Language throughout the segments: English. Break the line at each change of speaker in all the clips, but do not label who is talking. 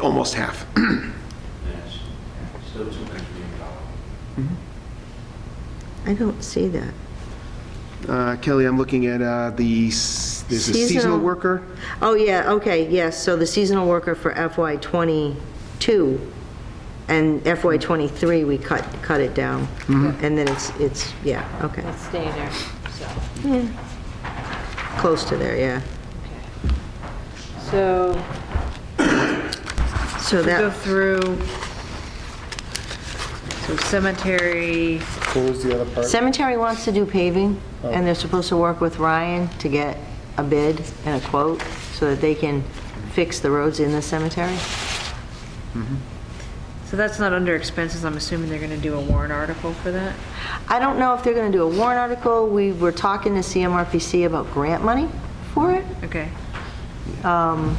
almost half.
Yes, still two hundred million dollars.
I don't see that.
Uh, Kelly, I'm looking at uh, the, s- there's a seasonal
Seasonal.
worker.
Oh, yeah, okay, yes, so the seasonal worker for FY '22 and FY '23, we cut, cut it down. And then it's, it's, yeah, okay,
It stay there, so,
close to there, yeah.
okay. So,
So
we go
that,
through, so cemetery,
What was the other part?
cemetery wants to do paving, and they're supposed to work with Ryan to get a bid and a quote so that they can fix the roads in the cemetery.
so that's not under expenses, I'm assuming they're gonna do a warrant article for that?
I don't know if they're going to do a warrant article. We were talking to CMRPC about grant money for it.
Okay,
And,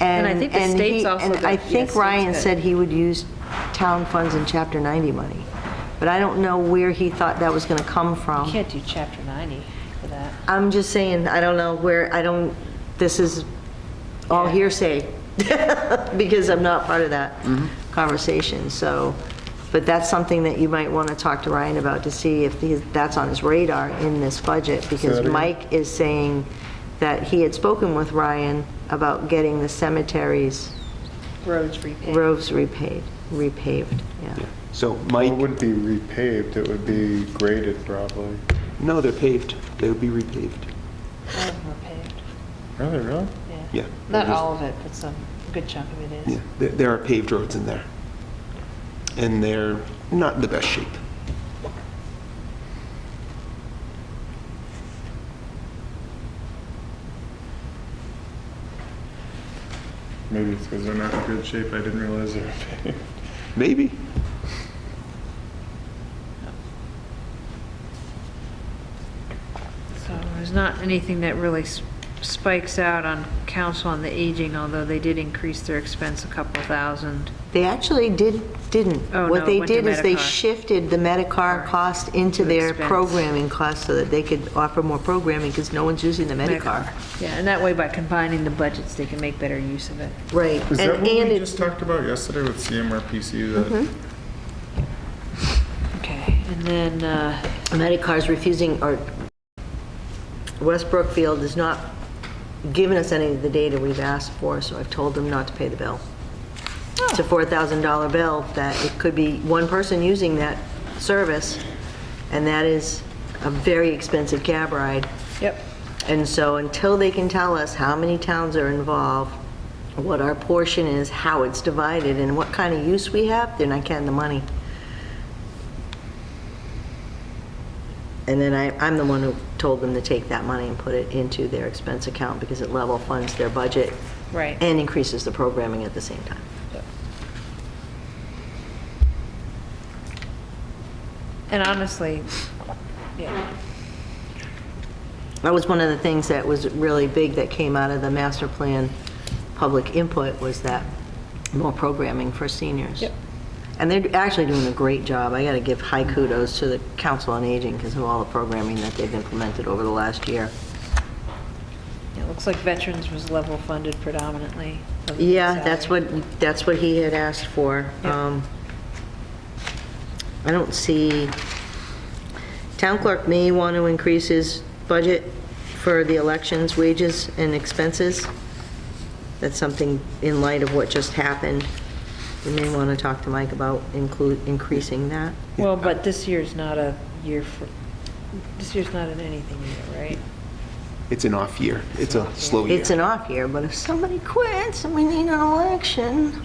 And I think the
and
state's
he-
also
And
good.
I
Yes,
think
state's
Ryan
good.
said he would use town funds and Chapter 90 money. But I don't know where he thought that was going to come
you
from.
can't do chapter 90 for that.
I'm just saying, I don't know where, I don't, this is all hearsay, because I'm not part of that conversation, so. But that's something that you might want to talk to Ryan about to see if he- that's on his radar in this budget, because
again.
Mike is saying that he had spoken with Ryan about getting the cemeteries
Roads repaved.
Roads repaid, repaved, yeah.
So
Well, It
Mike,
wouldn't be repaved, it would be graded probably.
no, they're paved. They would be repaved.
All of them are paved,
Really, really?
Yeah.
Not all of it, but some, a good chunk of it
Yeah,
is.
there- there are paved roads in there. And they're not in the best shape.
Maybe it's because they're not in good shape, I didn't realize they were paved.
Maybe.
So there's not anything that really s- spikes out on council on the aging, although they did increase their expense a couple thousand.
They actually did, didn't.
Oh, no,
What
it
they
went to
did is they
Medicare.
shifted the Medicare
Right.
cost into
To
their
expense.
programming cost so that they could offer more programming because no one's using the Medicare.
Yeah, and that way by combining the budgets, they can make better use of it.
Right.
Is that
And-
what
and
we
it- Mm-hmm.
just talked about yesterday with CMRPC that
Okay, and then, uh,
Medicare's refusing, or West Brookfield has not given us any of the data we've asked for, so I've told them not to pay the bill. It's a $4,000 bill that it could be one person using that service, and that is a very expensive cab ride.
Yep.
And so until they can tell us how many towns are involved, what our portion is, how it's divided, and what kind of use we have, they're not getting the money. And then I, I'm the one who told them to take that money and put it into their expense account because it level funds their budget
Right.
and increases the programming at the same time.
And honestly, yeah,
That was one of the things that was really big that came out of the master plan public input was that more programming for seniors.
Yep.
And they're actually doing a great job. I got to give high kudos to the Council on Aging because of all the programming that they've implemented over the last year.
it looks like veterans was level funded predominantly. of the
Yeah, that's
salary.
what, that's what he had asked for.
Yep.
Um, I don't see, town clerk may want to increase his budget for the elections, wages, and expenses. That's something in light of what just happened. We may want to talk to Mike about include, increasing that.
Well, but this year's not a year for, this year's not an anything year, right?
It's an off year. It's a slow year.
It's an off year, but if somebody quits and we need an election,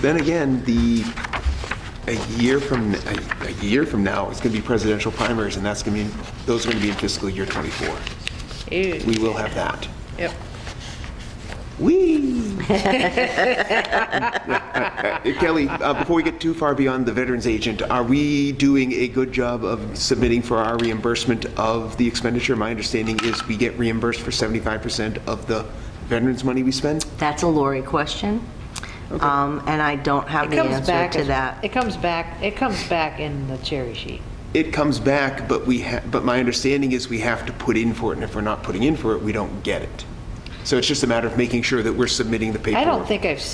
Then again, the, a year from, a a year from now, it's going to be presidential primaries, and that's going to be, those are going to be in fiscal year '24.
Ew.
We will have that.
Yep.
Whee! Uh, Kelly, uh, before we get too far beyond the Veterans Agent, are we doing a good job of submitting for our reimbursement of the expenditure? My understanding is we get reimbursed for 75% of the veterans' money we spend?
that's a Lori question. Um, And I don't have
It
the
comes
answer
back,
to
as-
that.
it comes back, it comes back in the cherry sheet.
It comes back, but we, ha- but my understanding is we have to put in for it, and if we're not putting in for it, we don't get it. So it's just a matter of making sure that we're submitting the paperwork.
I don't think I've